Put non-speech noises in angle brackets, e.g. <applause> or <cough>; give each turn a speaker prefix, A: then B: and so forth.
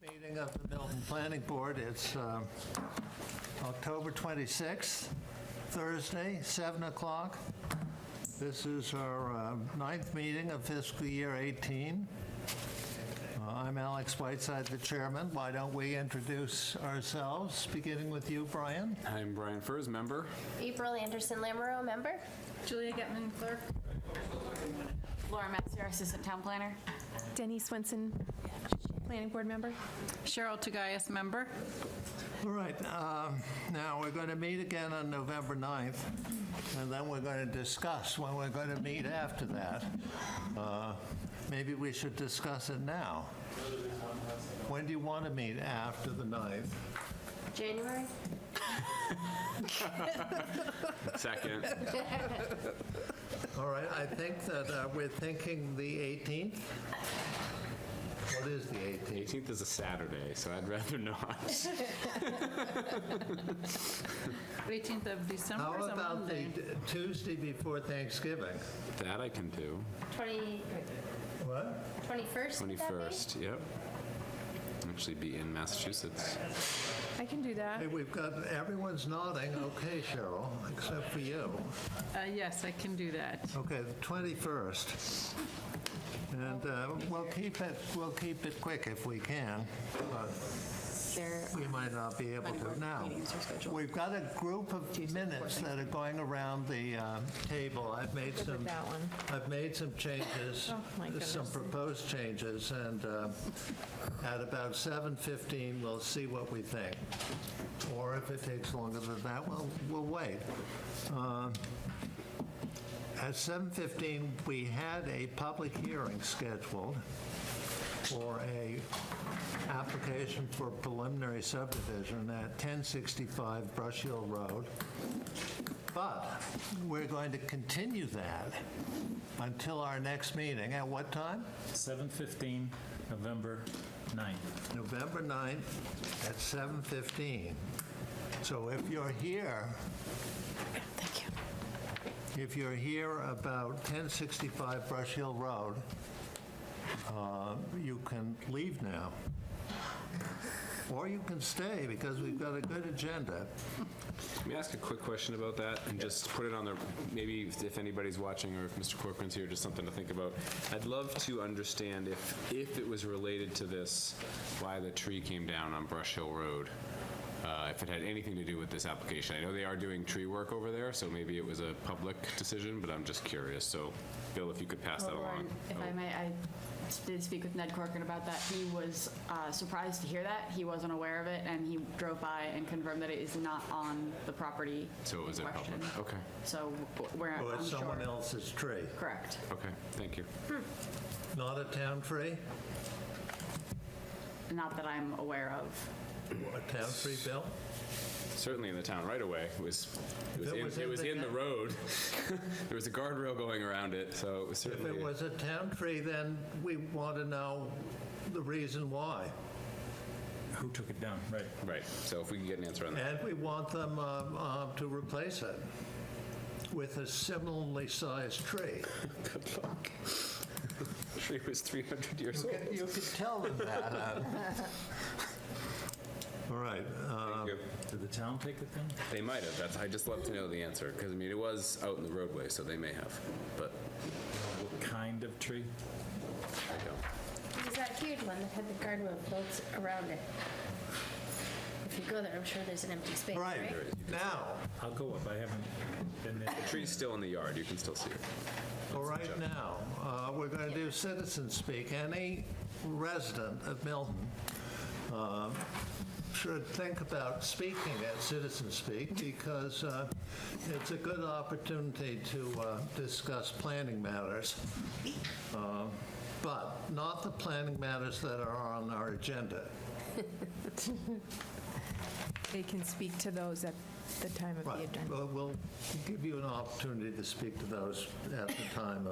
A: Meeting of the Milton Planning Board, it's um, October 26th, Thursday, 7 o'clock. This is our uh, ninth meeting of fiscal year 18. Uh, I'm Alex Whiteside, the chairman. Why don't we introduce ourselves, beginning with you, Brian?
B: I'm Brian Furs, member.
C: April Anderson Lamoureux, member.
D: Julia Getman, clerk. Laura Metzger, assistant town planner.
E: Denny Swenson, planning board member.
D: Cheryl Taggias, member.
A: All right, um, now, we're going to meet again on November 9th, and then we're going to discuss when we're going to meet after that. Uh, Maybe we should discuss it now. When do you want to meet after the 9th?
C: January.
B: Second.
A: All right, I think that uh, we're thinking the 18th? What is the 18th?
B: 18th is a Saturday, so I'd rather not.
D: 18th of December
A: How
D: is a
A: about the
D: Monday.
A: d- Tuesday before Thanksgiving?
B: That I can do.
C: 20,
A: What?
C: 21st? would that be?
B: 21st, yep. Actually be in Massachusetts.
E: I can do that.
A: Hey, we've got, everyone's nodding, okay, Cheryl, except for you.
D: Uh, Yes, I can do that.
A: Okay, the 21st. And uh, we'll keep it, we'll keep it quick if we can. but We might not be able to now. We've got a group of minutes that are going around the uh, table. I've made some,
E: that one. Oh,
A: I've made some changes,
E: my
A: some
E: goodness.
A: proposed changes, and uh, at about 7:15, we'll see what we think. Or if it takes longer than that, we'll, we'll wait. At 7:15, we had a public hearing scheduled for a application for preliminary subdivision at 1065 Brush Hill Road. But we're going to continue that until our next meeting. At what time?
F: 7:15, November 9th.
A: November 9th at 7:15. So if you're here... Thank you. If you're here about 1065 Brush Hill Road, uh, you can leave now. Or you can stay, because we've got a good agenda.
B: Let me ask a quick question about that and just put it on the, maybe if if anybody's watching or if Mr. Corcoran's here, just something to think about. I'd love to understand if, if it was related to this, why the tree came down on Brush Hill Road. uh, If it had anything to do with this application. I know they are doing tree work over there, so maybe it was a public decision, but I'm just curious. So Bill, if you could pass that along.
G: If I may, I did speak with Ned Corcoran about that. He was uh, surprised to hear that. He wasn't aware of it, and he drove by and confirmed that it is not on the property
B: So it was a
G: in
B: public,
G: question.
B: okay,
G: So w- we're,
A: Or
G: I'm
A: it's
G: sure.
A: someone else's tree.
G: Correct.
B: okay, thank you.
A: Not a town tree?
G: Not that I'm aware of.
A: A town tree, Bill?
B: Certainly in the town right away, it was, it was
A: If it
B: in,
A: was in
B: it was
A: the
B: in the
A: town-
B: road. <laughs> There was a guardrail going around it, so it was
A: If it
B: certainly.
A: was a town tree, then we want to know the reason why.
F: Who took it down? Right.
B: Right, so if we can get an answer on that.
A: And we want them um, uh, to replace it with a similarly sized tree.
B: Good luck. <laughs> Tree was 300 years
A: You
B: old.
A: can- You can tell them that. uh. All right. uh,
B: Thank you.
F: Did the town take it down?
B: They might have, that's, I'd just love to know the answer, because I mean, it was out in the roadway, so they may have, but
F: What kind of tree?
B: I don't.
C: It was that huge one that had the garden with boats around it. If you go there, I'm sure there's an empty space,
A: All
C: right?
A: right, now,
F: I'll go up, I haven't been there.
B: Tree's still in the yard, you can still see it.
A: all right now, uh, we're going to do citizen speak. Any resident of Milton um, should think about speaking at citizen speak because uh, it's a good opportunity to uh, discuss planning matters. uh, But not the planning matters that are on our agenda.
E: They can speak to those at the time of the
A: Right.
E: agenda.
A: Well, We'll give you an opportunity to speak to those at the time